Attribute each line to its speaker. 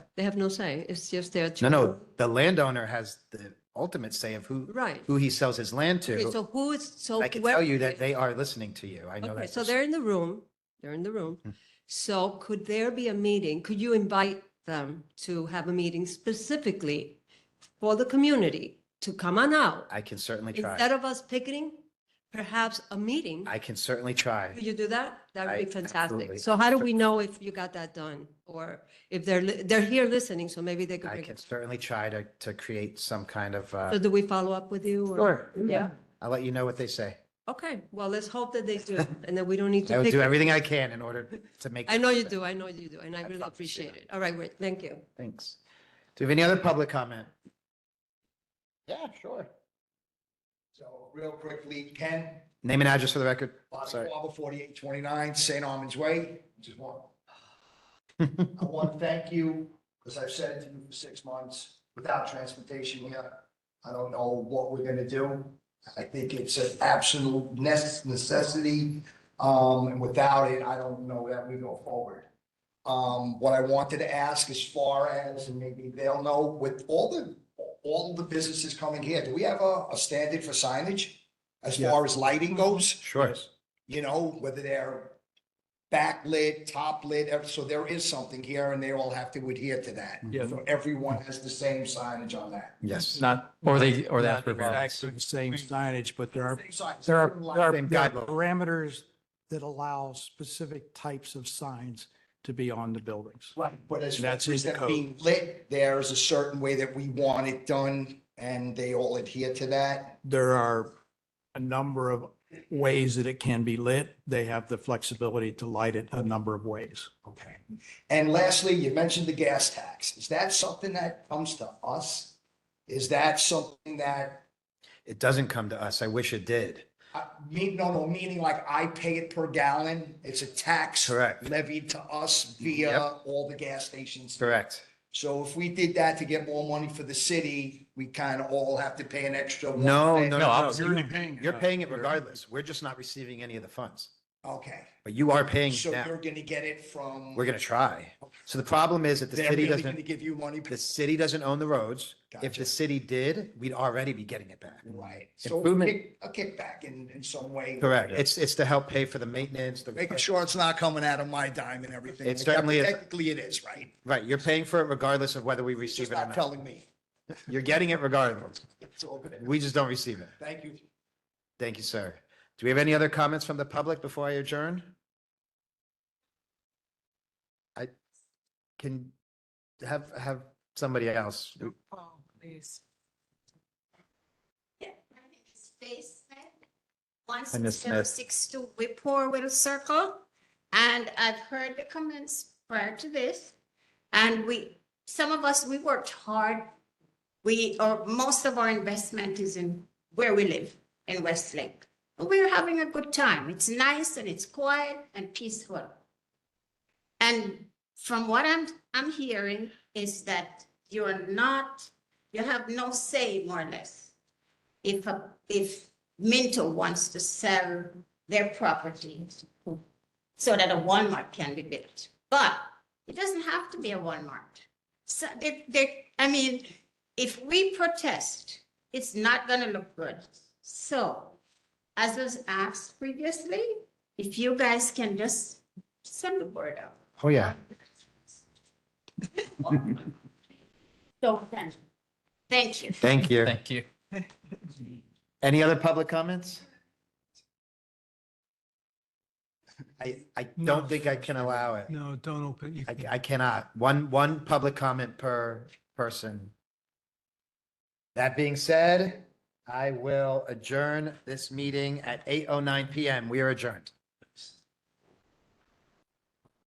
Speaker 1: They have no say. It's just their.
Speaker 2: No,
Speaker 1: choice.
Speaker 2: no, the landowner has the ultimate say of who,
Speaker 1: Right.
Speaker 2: who he sells his land
Speaker 1: Okay,
Speaker 2: to.
Speaker 1: so who is, so.
Speaker 2: I can
Speaker 1: where-
Speaker 2: tell you that they are listening to you. I know
Speaker 1: Okay,
Speaker 2: that. Hmm.
Speaker 1: so
Speaker 2: for
Speaker 1: they're in the room, they're in the room. So could there be a meeting? Could you invite them to have a meeting specifically for the community to come on out?
Speaker 2: I can certainly
Speaker 1: Instead
Speaker 2: try.
Speaker 1: of us picketing, perhaps a meeting?
Speaker 2: I can certainly try.
Speaker 1: Could you do that? That would
Speaker 2: I-
Speaker 1: be
Speaker 2: absolutely.
Speaker 1: fantastic. So how do we know if you got that done? Or if they're, li- they're here listening, so maybe they could.
Speaker 2: I
Speaker 1: pick
Speaker 2: can
Speaker 1: it.
Speaker 2: certainly try to, to create some kind of, uh,
Speaker 1: So do we follow up with you? or-
Speaker 2: Sure.
Speaker 1: Yeah.
Speaker 2: I'll let you know what they say.
Speaker 1: Okay, well, let's hope that they do, and then we don't need
Speaker 2: I
Speaker 1: to
Speaker 2: will
Speaker 1: pick.
Speaker 2: do everything I can in order to make.
Speaker 1: I know you do, I know you do, and I really
Speaker 2: promise you.
Speaker 1: appreciate it. All right, great, thank you.
Speaker 2: Thanks. Do we have any other public comment? Yeah, sure.
Speaker 3: So real quickly, Ken,
Speaker 2: Name and address for the record.
Speaker 3: Bobby
Speaker 2: Sorry.
Speaker 3: Barber, forty-eight twenty-nine, St. Armand's Way. Just want, I want to thank you, because I've said to you for six months, without transportation here, I don't know what we're gonna do. I think it's an absolute nes- necessity, um, and without it, I don't know that we go forward. Um, what I wanted to ask as far as, and maybe they'll know, with all the, all the businesses coming here, do we have a, a standard for signage? As far as lighting goes?
Speaker 2: Sure.
Speaker 3: you know, whether they're backlit, top lit, ev- so there is something here and they all have to adhere to that.
Speaker 4: Yeah.
Speaker 3: So everyone has the same signage on that.
Speaker 2: Yes.
Speaker 4: Not.
Speaker 5: Or they, or that's.
Speaker 4: not Exactly the same signage, but there are,
Speaker 3: Same size.
Speaker 4: there are, there are
Speaker 2: Same
Speaker 4: there are
Speaker 2: guidelines.
Speaker 4: parameters that allow specific types of signs to be on the buildings.
Speaker 3: Right, but as
Speaker 4: That's
Speaker 3: far
Speaker 4: in
Speaker 3: as
Speaker 4: the
Speaker 3: that
Speaker 4: code.
Speaker 3: being lit, there is a certain way that we want it done and they all adhere to that.
Speaker 4: There are a number of ways that it can be lit. They have the flexibility to light it a number of ways.
Speaker 3: Okay. And lastly, you mentioned the gas tax. Is that something that comes to us? Is that something that
Speaker 2: It doesn't come to us. I wish it did.
Speaker 3: I mean, no, no, Uh, meaning like I pay it per gallon. It's a tax
Speaker 2: Correct.
Speaker 3: levied to us via
Speaker 2: Yep.
Speaker 3: all the gas stations.
Speaker 2: Correct.
Speaker 3: So if we did that to get more money for the city, we kind of all have to pay an extra. one
Speaker 2: No,
Speaker 3: cent.
Speaker 2: no,
Speaker 5: No,
Speaker 2: no.
Speaker 5: obviously.
Speaker 2: You're-
Speaker 4: paying.
Speaker 2: You're paying it regardless. We're just not receiving any of the funds,
Speaker 3: Okay,
Speaker 2: but you are paying it
Speaker 3: so
Speaker 2: now.
Speaker 3: you're gonna get it from.
Speaker 2: We're going to try. So the problem is that the
Speaker 3: They're
Speaker 2: city
Speaker 3: really Gonna
Speaker 2: doesn't,
Speaker 3: give you money.
Speaker 2: the city doesn't own the roads. If
Speaker 3: Gotcha.
Speaker 2: the city did, we'd already be getting it back.
Speaker 3: Right. So a
Speaker 2: Improvement.
Speaker 3: kick- a kickback in, in some way.
Speaker 2: Correct. It's, it's to help pay for the maintenance, the
Speaker 3: Making sure it's not coming out of my dime and everything.
Speaker 2: It certainly is.
Speaker 3: Technically it is, right?
Speaker 2: Right, you're paying for it regardless of whether we
Speaker 3: It's
Speaker 2: receive
Speaker 3: Just
Speaker 2: it or
Speaker 3: not
Speaker 2: not.
Speaker 3: telling me.
Speaker 2: You're getting it regardless.
Speaker 3: It's all good.
Speaker 2: We just don't receive it.
Speaker 3: Thank you.
Speaker 2: Thank you, sir. Do we have any other comments from the public before I adjourn? I can have, have somebody else.
Speaker 6: Oh, please.
Speaker 7: Yeah, I think it's basement. One
Speaker 2: I miss
Speaker 7: sixty
Speaker 2: that.
Speaker 7: six to Whipple Will Circle. And I've heard the comments prior to this. And we, some of us, we worked hard. We, or most of our investment is in where we live in Westlake. But We're having a good time. It's nice and it's quiet and peaceful. And from what I'm, I'm hearing is that you're not, you have no say more or less if, a- if Minto wants to sell their property so that a Walmart can be built, but it doesn't have to be a Walmart. So they, they, I mean, if we protest, it's not gonna look good. So, as was asked previously, if you guys can just send the word out.
Speaker 2: Oh, yeah.
Speaker 7: So, thank- thank you.
Speaker 2: Thank you.
Speaker 5: Thank you.
Speaker 2: Any other public comments? I, I don't think I can allow it.
Speaker 8: No, don't open. You
Speaker 2: I,
Speaker 8: can't.
Speaker 2: I cannot. One, one public comment per person. That being oh said, I will adjourn this meeting at 8:09 PM. We are adjourned.